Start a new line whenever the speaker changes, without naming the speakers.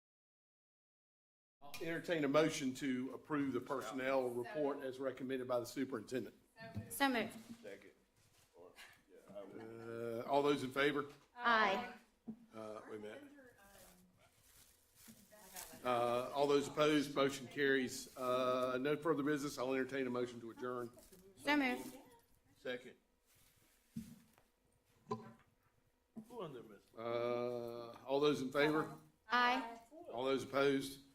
entertain a motion to approve the personnel report as recommended by the superintendent.
So moved.
Uh, All those in favor?
Aye.
Uh, Wait a minute. Uh, All those opposed, motion carries. Uh, No further business, I'll entertain a motion to adjourn.
So moved.
Second.
Who on there, miss?
Uh, All those in favor?
Aye.
All those opposed?